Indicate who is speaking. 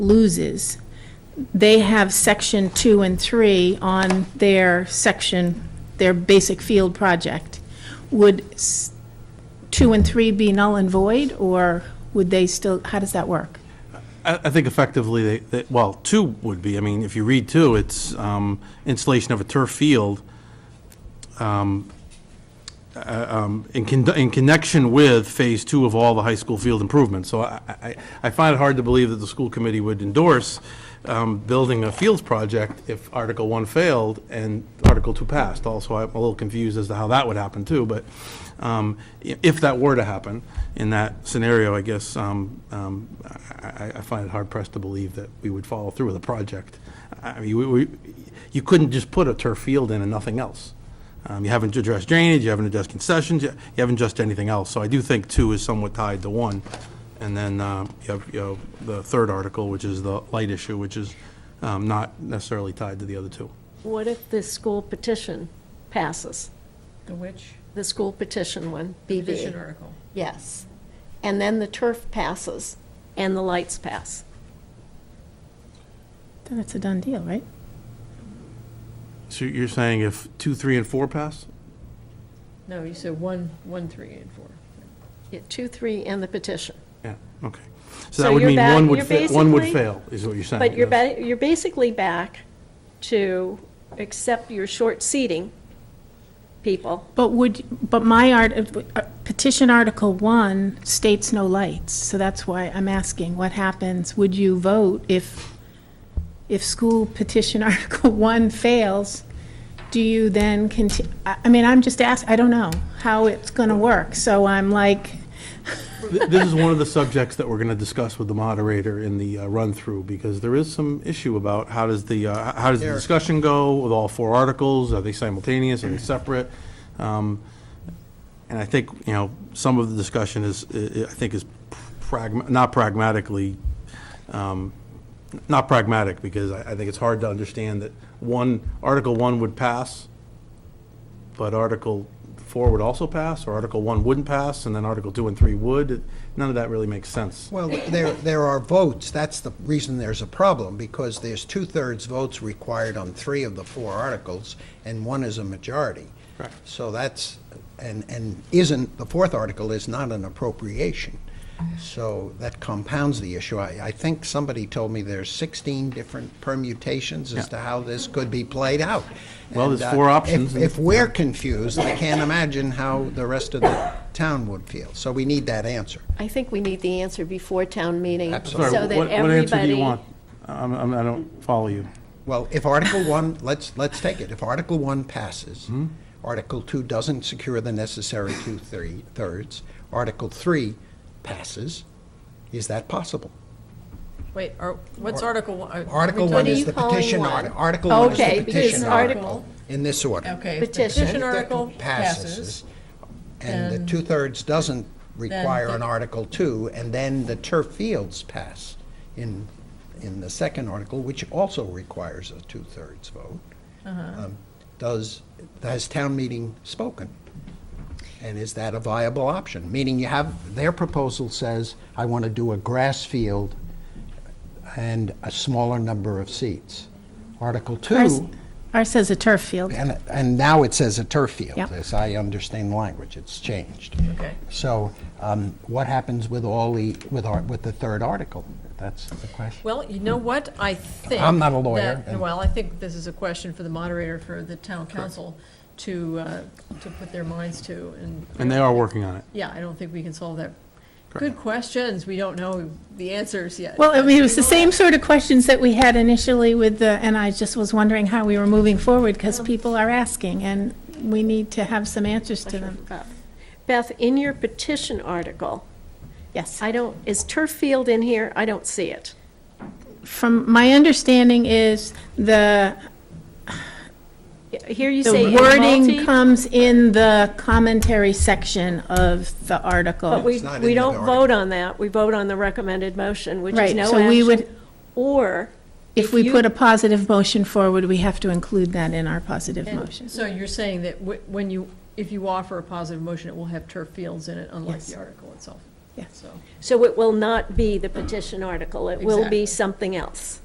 Speaker 1: loses, they have section two and three on their section, their basic field project. Would s- two and three be null and void, or would they still, how does that work?
Speaker 2: I, I think effectively, they, they, well, two would be, I mean, if you read two, it's, um, installation of a turf field, um, uh, um, in con, in connection with phase two of all the high school field improvements. So I, I, I find it hard to believe that the school committee would endorse, um, building a fields project if Article one failed and Article two passed. Also, I'm a little confused as to how that would happen too, but, um, i- if that were to happen, in that scenario, I guess, um, um, I, I- I find it hard pressed to believe that we would follow through with a project. I mean, we, we, you couldn't just put a turf field in and nothing else. Um, you haven't addressed drainage, you haven't addressed concessions, you you haven't addressed anything else. So I do think two is somewhat tied to one. And then, um, you have, you know, the third article, which is the light issue, which is, um, not necessarily tied to the other two.
Speaker 3: What if the school petition passes?
Speaker 4: The which
Speaker 3: The school petition one,
Speaker 4: petition
Speaker 3: BB.
Speaker 4: article?
Speaker 3: Yes. And then the turf passes and the lights pass.
Speaker 1: Then it's a done deal, right?
Speaker 2: So you're saying if two, three, and four pass?
Speaker 4: No, you said one, one, three, and four.
Speaker 3: Yeah, Two, three, and the petition.
Speaker 2: Yeah, okay. So
Speaker 3: So
Speaker 2: that would
Speaker 3: you're
Speaker 2: mean
Speaker 3: ba-
Speaker 2: one would,
Speaker 3: you're
Speaker 2: fa- one would
Speaker 3: basically-
Speaker 2: fail, is what you're saying.
Speaker 3: But you're,
Speaker 2: yes.
Speaker 3: ba- you're basically back to accept your short seating people.
Speaker 1: But would, but my art, uh, petition Article One states no lights, so that's why I'm asking, what happens? Would you vote if, if school petition Article One fails? Do you then conti, I, I mean, I'm just ask, I don't know how it's gonna work, so I'm like,
Speaker 2: Th- This is one of the subjects that we're going to discuss with the moderator in the uh, run-through, because there is some issue about how does the, uh, how does the discussion go with all four articles? Are they simultaneous? Are they separate? Um, And I think, you know, some of the discussion is, I I think is pragma, not pragmatically, um, not pragmatic, because I I think it's hard to understand that one, Article 1 would pass, but Article 4 would also pass, or Article 1 wouldn't pass, and then Article 2 and 3 would. None of that really makes sense.
Speaker 5: Well, there, there are votes. That's the reason there's a problem, because there's two-thirds votes required on three of the four articles, and one is a majority.
Speaker 2: Correct.
Speaker 5: So that's, and, and isn't, the fourth article is not an appropriation. So that compounds the issue. I, I think somebody told me there's 16 different permutations as to how this could be played out.
Speaker 2: Well, there's
Speaker 5: And, uh,
Speaker 2: four options,
Speaker 5: if-
Speaker 2: and-
Speaker 5: If we're confused, I can't imagine how the rest of the town would feel. So we need that answer.
Speaker 3: I think we need the answer before town meeting.
Speaker 5: Absolutely.
Speaker 2: Sorry,
Speaker 3: so that
Speaker 2: what what answer do you
Speaker 3: everybody-
Speaker 2: want? I'm- I'm- I don't follow you.
Speaker 5: Well, if Article 1, let's, let's take it, if Article 1 passes, Article 2 doesn't secure the necessary two-thirds, Article 3 passes, is that possible?
Speaker 4: Wait, are, what's Article one? are-
Speaker 5: Article
Speaker 4: are we
Speaker 5: 1
Speaker 4: talking-
Speaker 5: is
Speaker 3: you
Speaker 5: the
Speaker 3: calling
Speaker 5: petition
Speaker 3: one?
Speaker 5: article, Article 1 is
Speaker 3: Okay,
Speaker 5: the
Speaker 3: because
Speaker 5: petition
Speaker 3: article-
Speaker 5: article, in this order.
Speaker 4: Okay, if the
Speaker 3: Petition.
Speaker 4: petition article
Speaker 5: If that
Speaker 4: passes.
Speaker 5: And the
Speaker 4: then-
Speaker 5: two-thirds doesn't require
Speaker 4: the-
Speaker 5: an Article 2, and then the turf fields pass in, in the second article, which also requires a two-thirds vote.
Speaker 4: Uh-huh.
Speaker 5: Um, Does, has town meeting spoken? And is that a viable option? Meaning you have, their proposal says, I want to do a grass field and a smaller number of seats. Article 2.
Speaker 1: ours, ours says a turf field.
Speaker 5: And, and now it says a turf field,
Speaker 1: Yep.
Speaker 5: as I understand the language, it's changed.
Speaker 4: Okay.
Speaker 5: So um, what happens with all the, with our, with the third article? That's the question.
Speaker 4: Well, you know what, I think.
Speaker 5: I'm not a lawyer,
Speaker 4: that-
Speaker 5: and-
Speaker 4: Well, I think this is a question for the moderator, for the town council to, uh, to put their minds to and.
Speaker 2: And they are working on it.
Speaker 4: Yeah, I don't think we can solve that. Good questions, we don't know the answers yet.
Speaker 1: Well, I mean, it was the same sort of questions that we had initially with the, and I just was wondering how we were moving forward, because people are asking, and we need to have some answers to them.
Speaker 3: Beth, in your petition article,
Speaker 1: Yes.
Speaker 3: I don't, is turf field in here? I don't see it.
Speaker 1: From, my understanding is the,
Speaker 3: Here you say
Speaker 1: the
Speaker 3: in
Speaker 1: wording
Speaker 3: multi-
Speaker 1: comes in the commentary section of the
Speaker 3: But
Speaker 1: article.
Speaker 3: we,
Speaker 5: not
Speaker 3: we
Speaker 5: in the
Speaker 3: don't
Speaker 5: article.
Speaker 3: vote on that. We vote on the recommended motion, which is
Speaker 1: Right,
Speaker 3: no
Speaker 1: so we would-
Speaker 3: action. Or,
Speaker 1: If we
Speaker 3: you-
Speaker 1: put a positive motion forward, we have to include that in our positive motion.
Speaker 4: So you're saying that wh- when you, if you offer a positive motion, it will have turf fields in it, unlike
Speaker 1: Yes.
Speaker 4: the article itself?
Speaker 1: Yes.
Speaker 4: so.
Speaker 3: So it will not be the petition article, it will be
Speaker 4: Exactly.
Speaker 3: something else.